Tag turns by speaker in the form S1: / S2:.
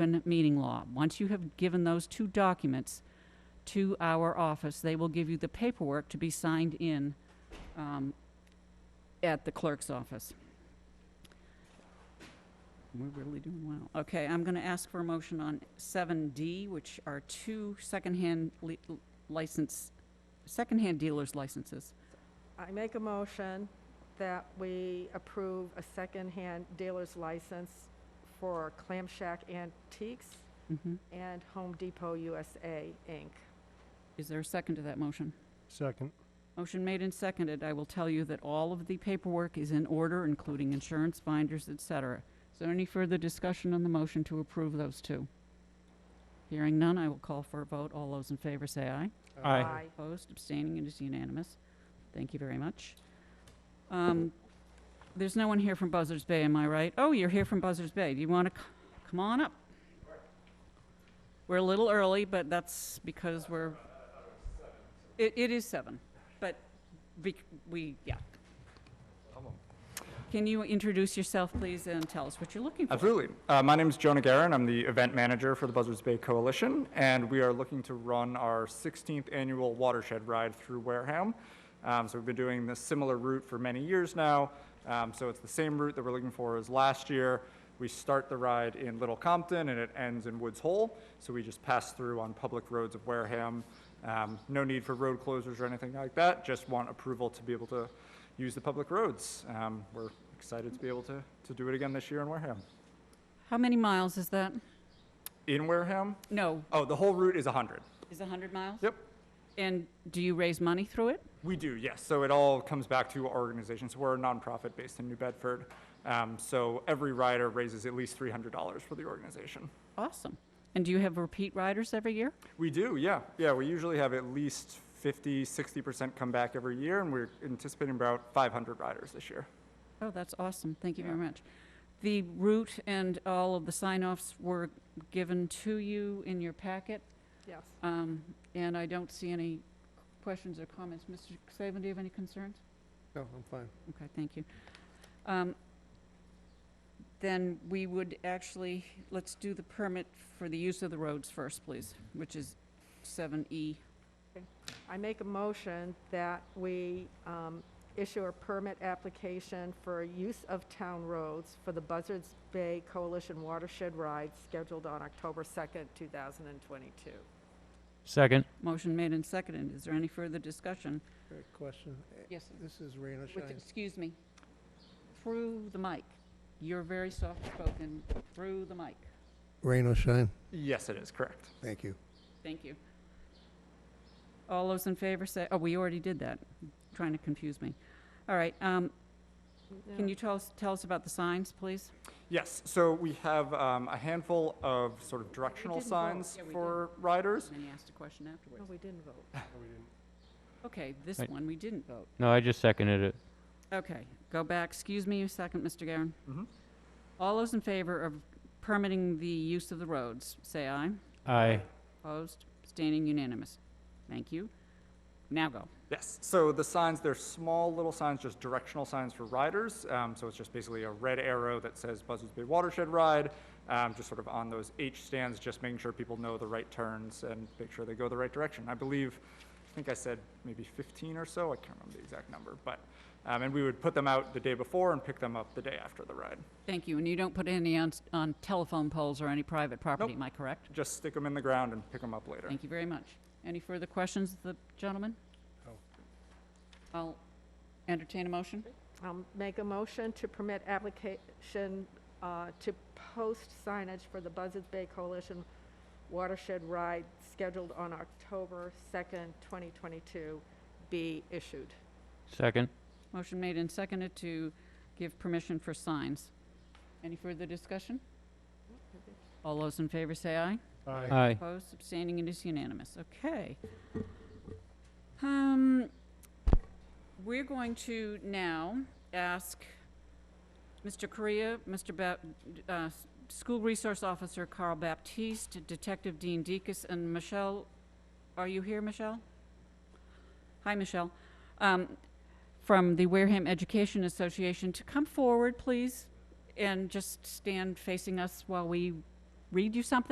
S1: open meeting law. Once you have given those two documents to our office, they will give you the paperwork to be signed in um, at the clerk's office. We're really doing well. Okay, I'm going to ask for a motion on 7D, which are two secondhand li- license, secondhand dealers licenses.
S2: I make a motion that we approve a secondhand dealer's license for Clam Shack Antiques
S1: Mhm.
S2: and Home Depot USA, Inc.
S1: Is there a second to that motion?
S3: Second.
S1: Motion made and seconded. I will tell you that all of the paperwork is in order, including insurance binders, et cetera. Is there any further discussion on the motion to approve those two? Hearing none, I will call for a vote. All those in favor say aye.
S3: Aye.
S1: Opposed, abstaining, it is unanimous. Thank you very much. Um, There's no one here from Buzzards Bay, am I right? Oh, you're here from Buzzards Bay. Do you want to, come on up? We're a little early, but that's because we're, it, it is seven, but we, we, yeah. Can you introduce yourself, please, and tell us what you're looking for?
S4: Absolutely. Uh, my name is Jonah Garin. I'm the event manager for the Buzzards Bay Coalition, and we are looking to run our 16th annual watershed ride through Wareham. Um, so we've been doing this similar route for many years now. Um, so it's the same route that we're looking for as last year. We start the ride in Little Compton and it ends in Woods Hole. So we just pass through on public roads of Wareham. Um, no need for road closures or anything like that. Just want approval to be able to use the public roads. Um, we're excited to be able to, to do it again this year in Wareham.
S1: How many miles is that?
S4: In Wareham?
S1: No,
S4: Oh, the whole route is 100.
S1: is it 100 miles?
S4: Yep.
S1: And do you raise money through it?
S4: We do, yes. So it all comes back to our organization. So we're a nonprofit based in New Bedford. Um, so every rider raises at least $300 for the organization.
S1: Awesome. And do you have repeat riders every year?
S4: We do, yeah. Yeah, we usually have at least 50, 60% come back every year, and we're anticipating about 500 riders this year.
S1: Oh, that's awesome. Thank you very
S4: Yeah.
S1: much. The route and all of the sign-offs were given to you in your packet,
S2: Yes.
S1: um, and I don't see any questions or comments. Mr. Saban, do you have any concerns?
S3: No, Oh, I'm fine.
S1: Okay, thank you. Um, Then we would actually, let's do the permit for the use of the roads first, please, which is E, 7E.
S2: I make a motion that we um, issue a permit application for use of town roads for the Buzzards Bay Coalition Watershed Ride scheduled on October 2nd, 2022.
S5: Second.
S1: Motion made and seconded. Is there any further discussion?
S3: Great question. Eh,
S1: Yes, sir.
S3: This is rain or
S1: With,
S3: shine.
S1: excuse me, through the mic. You're very soft-spoken, through the mic.
S3: Rain or shine.
S4: Yes, it is, correct.
S3: Thank you.
S1: Thank you. All those in favor say, oh, we already did that. Trying to confuse me. All right, um, can you tell us, tell us about the signs, please?
S4: Yes, so we have um, a handful of sort of directional
S1: didn't vote.
S4: signs
S1: Yeah, we
S4: for riders.
S1: And then he asked a question
S2: No,
S1: afterwards.
S2: we didn't vote.
S1: Okay, this
S5: Right.
S1: one, we didn't vote.
S5: No, I just seconded it.
S1: Okay, go back. Excuse me a second, Mr. Garen.
S4: Mhm.
S1: All those in favor of permitting the use of the roads, say aye.
S5: Aye.
S1: Opposed, abstaining, unanimous. Thank you. Now go.
S4: Yes, so the signs, they're small little signs, just directional signs for riders. Um, so it's just basically a red arrow that says Buzzards Bay Watershed Ride, um, just sort of on those H stands, just making sure people know the right turns and make sure they go the right direction. I believe, I think I said maybe 15 or so, I can't remember the exact number, but, um, and we would put them out the day before and pick them up the day after the ride.
S1: Thank you. And you don't put any on, s- on telephone poles or any private property,
S4: Nope.
S1: am I correct?
S4: Just stick them in the ground and pick them up later.
S1: Thank you very much. Any further questions, of the gentleman?
S3: No.
S1: I'll entertain a motion.
S2: Um, Make a motion to permit application uh, to post signage for the Buzzards Bay Coalition Watershed Ride scheduled on October 2nd, 2022, be issued.
S5: Second.
S1: Motion made and seconded to give permission for signs. Any further discussion? All those in favor say aye.
S5: Aye.
S1: Opposed, abstaining, it is unanimous. Okay. Um, we're going to now ask Mr. Correa, Mr. Ba- uh, School Resource Officer Carl Baptiste, Detective Dean Deacus, and Michelle, are you here, Michelle? Hi, Michelle. Um, from the Wareham Education Association to come forward, please, and just stand facing us while we read you something?